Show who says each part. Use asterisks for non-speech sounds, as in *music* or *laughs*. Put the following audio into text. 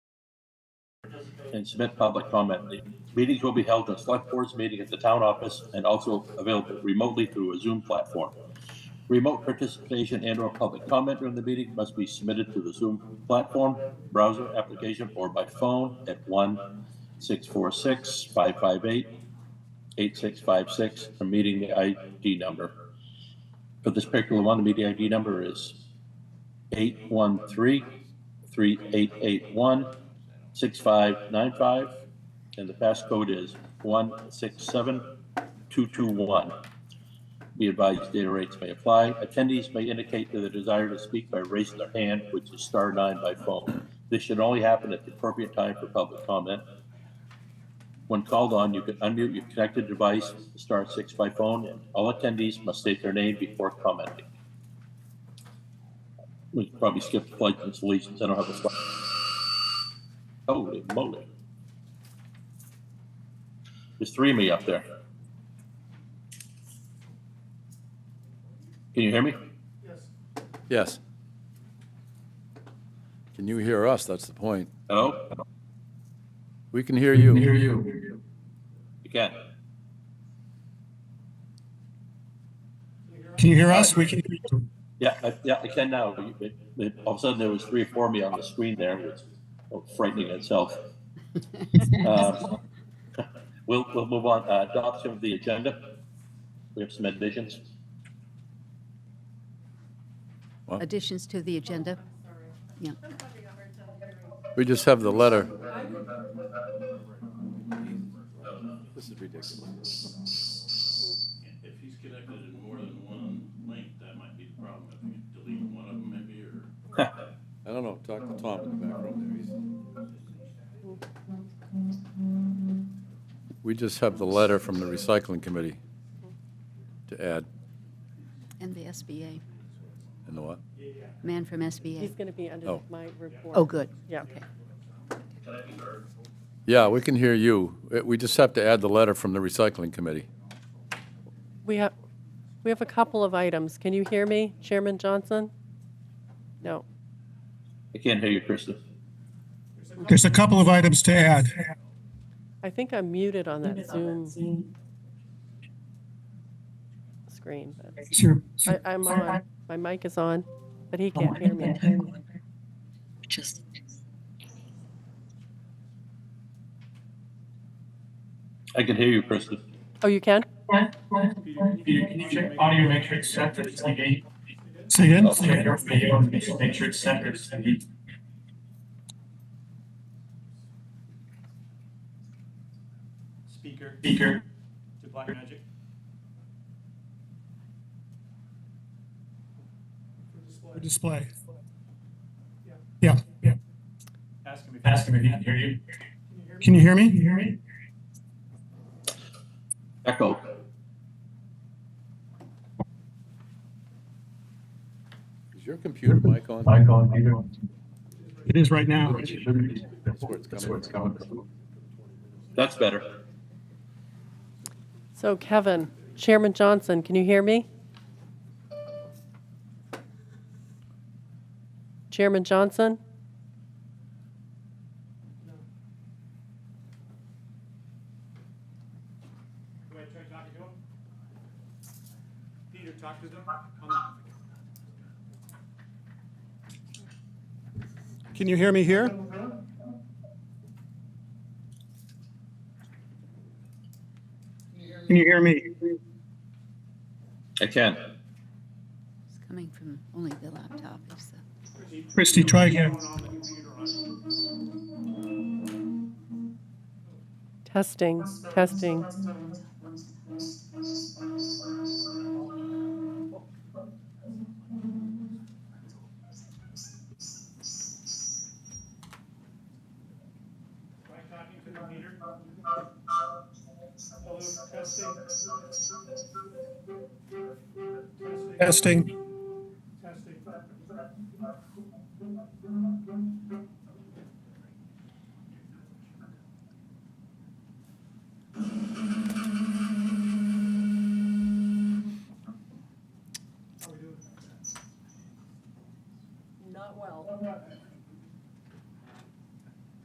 Speaker 1: and submit public comment. The Meetings will be held in select board's meeting at the town office and also available remotely through a Zoom platform. Remote participation and or public comment during the meeting must be submitted to the Zoom platform, browser application, or by phone at one 646 558 8656 I'm meeting the ID number. For this particular one, the meeting ID number is 813-3881-6595, and the passcode is 167221. Be advised, data rates may apply. Attendees may indicate their desire to speak by raising their hand, which is star nine by phone. This should only happen at the appropriate time for public comment. When called on, you can unmute your connected device, star six by phone, and all attendees must state their name before commenting. We can probably skip the pledge and allegiance. I don't have a slide. Holy moly. There's three of me up there. Can you hear me?
Speaker 2: Yes. Can you hear us? That's the point.
Speaker 1: Hello?
Speaker 2: We can hear you.
Speaker 3: Hear you.
Speaker 1: You can.
Speaker 3: Can you hear us? We can hear you.
Speaker 1: Yeah, I, yeah, I can now. You- it- it- All of a sudden, there was three or four of me on the screen there, which was frightening in itself. Um, *laughs* We'll, we'll move on. Uh, Adoption of the agenda. We have some additions.
Speaker 4: Additions to the agenda? Yeah.
Speaker 2: We just have the letter. This is ridiculous.
Speaker 5: If he's connected in more than one link, that might be the problem. If you delete one of them maybe,
Speaker 2: *laughs*
Speaker 5: or
Speaker 2: I don't know. Talk to Tom in the back room there. He's- We just have the letter from the recycling committee to add.
Speaker 4: And the SBA,
Speaker 2: And the what?
Speaker 4: man from SBA.
Speaker 6: He's going to be under
Speaker 2: Oh.
Speaker 6: my report.
Speaker 4: Oh, good.
Speaker 6: Yeah.
Speaker 2: Yeah, we can hear you. Uh, We just have to add the letter from the recycling committee.
Speaker 6: We have, we have a couple of items. Can you hear me, Chairman Johnson? No.
Speaker 1: I can't hear you, Krista.
Speaker 3: There's a couple of items to add.
Speaker 6: I think I'm muted on that Zoom screen. but
Speaker 7: Sure.
Speaker 6: I, I'm on. My mic is on, but he can't hear me.
Speaker 7: Just.
Speaker 1: I can hear you, Krista.
Speaker 6: Oh, you can?
Speaker 8: Peter, can you check audio matrix set for the TV?
Speaker 3: Say again?
Speaker 8: Check your video and make make sure it's set for the TV.
Speaker 9: speaker
Speaker 8: Speaker,
Speaker 9: to Black Magic.
Speaker 3: Display. Yeah, yeah.
Speaker 9: Ask him if
Speaker 8: ask him if he can hear you.
Speaker 3: Can you hear me? Can you hear me?
Speaker 1: Echo.
Speaker 2: Is your computer mic on?
Speaker 8: Mic on, either one.
Speaker 3: It is right now.
Speaker 2: That's where it's coming from.
Speaker 1: That's better.
Speaker 6: So Kevin, Chairman Johnson, can you hear me? Chairman Johnson?
Speaker 9: Do I try talking to him? Peter, talk to them. Come
Speaker 10: Can you hear me here?
Speaker 3: Can you hear me?
Speaker 1: I can.
Speaker 4: It's coming from only the laptop. It's the-
Speaker 3: Christie, try again.
Speaker 9: on the computer on.
Speaker 6: Testing, testing.
Speaker 9: Am I talking to the Peter? Hello, testing. Testing.
Speaker 3: Testing.